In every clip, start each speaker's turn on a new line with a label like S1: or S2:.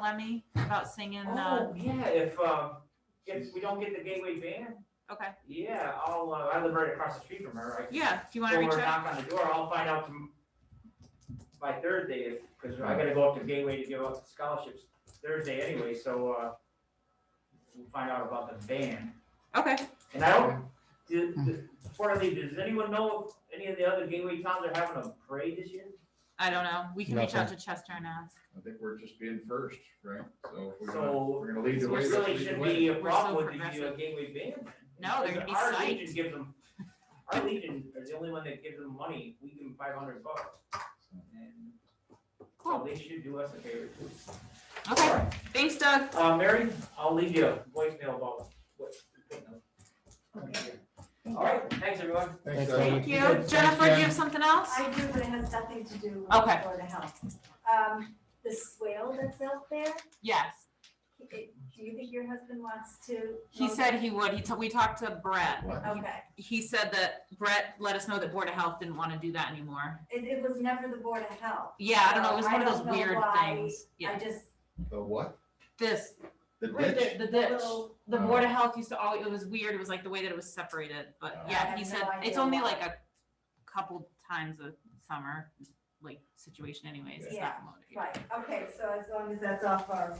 S1: Lemmy about singing, uh,
S2: Oh, yeah, if, um, if we don't get the Gateway band,
S3: Oh.
S1: okay,
S2: yeah, I'll, uh, I live right across the street from her, right?
S1: yeah, do you wanna reach out?
S2: Knock on the door, I'll find out tom- by Thursday, if, cause I gotta go up to Gateway to give up scholarships Thursday anyway, so, uh, we'll find out about the band.
S1: Okay,
S2: And I don't, do- do- before I leave, does anyone know if any of the other Gateway towns are having a parade this year?
S1: I don't know, we can reach out to Chester and ask,
S4: I think we're just being first, right? So if we're gonna,
S2: So,
S4: we're gonna lead
S2: It
S4: the way. let's
S2: really
S4: lead the
S2: shouldn't
S4: way.
S2: be a
S1: We're so
S2: problem with the uh,
S1: progressive.
S2: gateway band.
S1: No, they're gonna be
S2: Our
S1: psyched.
S2: legion gives them, our legion is the only one that gives them money, we give them five hundred bucks. And So
S1: Cool.
S2: they should do us a favor. too.
S1: okay,
S2: Alright,
S1: thanks Doug,
S2: Uh, Mary, I'll leave you a voicemail about what. All right, thanks, everyone.
S4: Thanks,
S5: Thank
S4: Ellen.
S1: thank you, Jennifer, do you have something else?
S3: I do, but it has nothing to do with
S1: Okay.
S3: Board of Health. Um, the swale that's out there,
S1: Yes,
S3: it- do you think your husband wants to?
S1: he
S3: mow
S1: said
S3: that?
S1: he would, he, t- we talked to Brett,
S4: What?
S3: Okay,
S1: he said that Brett let us know that Board of Health didn't wanna do that anymore.
S3: it, it was never the Board of Health.
S1: Yeah, I don't know, it was
S3: So I
S1: one of those
S3: don't know
S1: weird
S3: why
S1: things,
S3: I
S1: yeah,
S3: just,
S4: The what?
S1: this,
S4: The
S1: Right,
S4: ditch?
S1: the, the ditch,
S3: Little-
S1: the board of health used to all, it was weird, it was like the way that it was separated, but
S4: Oh.
S3: I
S1: yeah,
S3: have
S1: he
S3: no
S1: said, it's
S3: idea
S1: only
S3: why.
S1: like a couple times a summer, like situation anyways, it's
S3: Yeah,
S1: not promoted.
S3: right, okay, so as long as that's off our.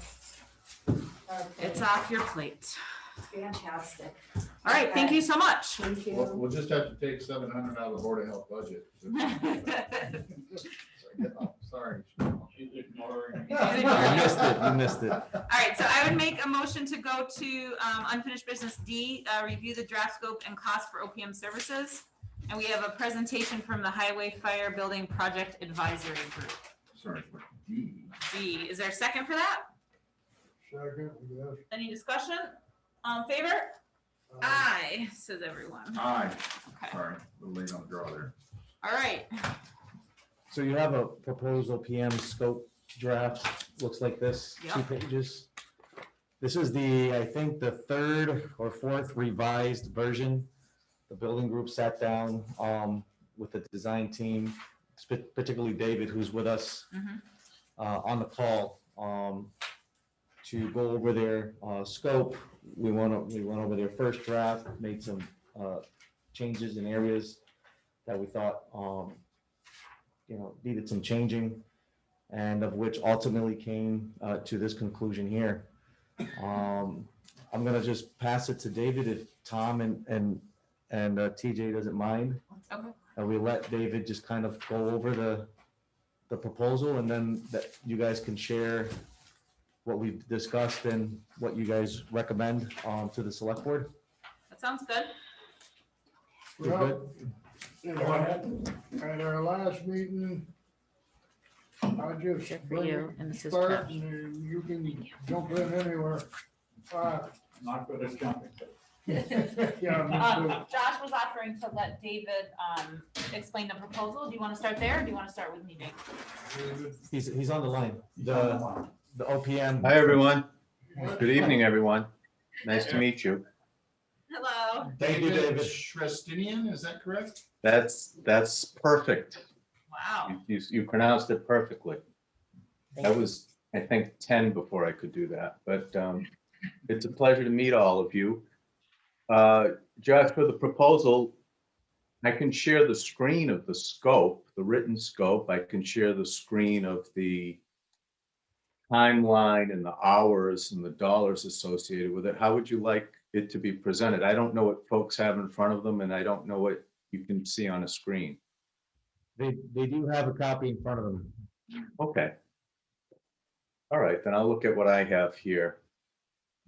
S3: our
S1: It's
S3: plate,
S1: off your plate.
S3: Fantastic.
S1: All right, thank
S3: Okay,
S1: you so much.
S3: Thank
S4: We'll,
S3: you.
S4: we'll just have to take seven hundred out of the Board of Health budget. Sorry.
S2: She's ignoring.
S1: I
S5: missed it, you missed it.
S1: All right, so I would make a motion to go to um, unfinished business D, uh, review the draft scope and cost for OPM services. And we have a presentation from the Highway Fire Building Project Advisory Group.
S4: Sorry. D.
S1: D, is there a second for that?
S6: Second, yes.
S1: Any discussion? All in favor? Aye, says everyone.
S4: Aye,
S1: Okay,
S4: sorry, a little late on the draw there.
S1: all right.
S5: So you have a proposal PM scope draft, looks like this, two
S1: Yeah.
S5: pages. This is the, I think, the third or fourth revised version. The building group sat down um, with the design team, sp- particularly David, who's with us
S1: Mhm.
S5: uh, on the call um, to go over their uh, scope. We went, o- we went over their first draft, made some uh, changes in areas that we thought um, you know, needed some changing, and of which ultimately came uh, to this conclusion here. Um, I'm gonna just pass it to David if Tom and, and, and uh, TJ doesn't mind.
S1: Okay.
S5: And we let David just kind of go over the, the proposal, and then that you guys can share what we've discussed and what you guys recommend um, to the select board.
S1: That sounds good.
S5: You're
S6: Well, you know, at- At our last meeting, I just bring it,
S1: and this
S6: start and you can jump in anywhere. Uh,
S2: Not for this company.
S6: Yeah,
S1: Um,
S6: Mr.
S1: Josh was offering to let David, um, explain the proposal. Do you want to start there or do you want to start with me, Nick?
S6: David.
S5: He's, he's on the line, the, the OPM.
S7: Hi, everyone. Good evening, everyone. Nice to meet you.
S1: Hello.
S5: Thank you, David.
S4: Shrestinian, is that correct?
S7: That's, that's perfect.
S1: Wow.
S7: You- You, you pronounced it perfectly. That was, I think, 10 before I could do that, but um, it's a pleasure to meet all of you. Uh, Josh, for the proposal, I can share the screen of the scope, the written scope. I can share the screen of the timeline and the hours and the dollars associated with it. How would you like it to be presented? I don't know what folks have in front of them, and I don't know what you can see on a screen.
S5: They, they do have a copy in front of them.
S7: Okay. All right, then I'll look at what I have here.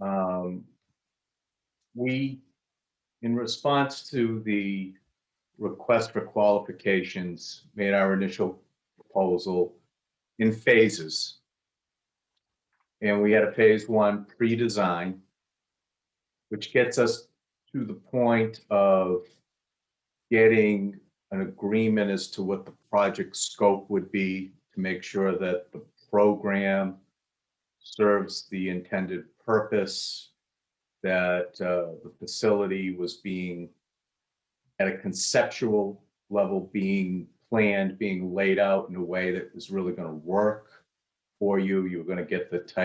S7: Um, We, in response to the request for qualifications, made our initial proposal in phases. And we had a phase one pre-design, which gets us to the point of getting an agreement as to what the project scope would be to make sure that the program serves the intended purpose, that uh, the facility was being, at a conceptual level, being planned, being laid out in a way that was really going to work for you. You were going to get the type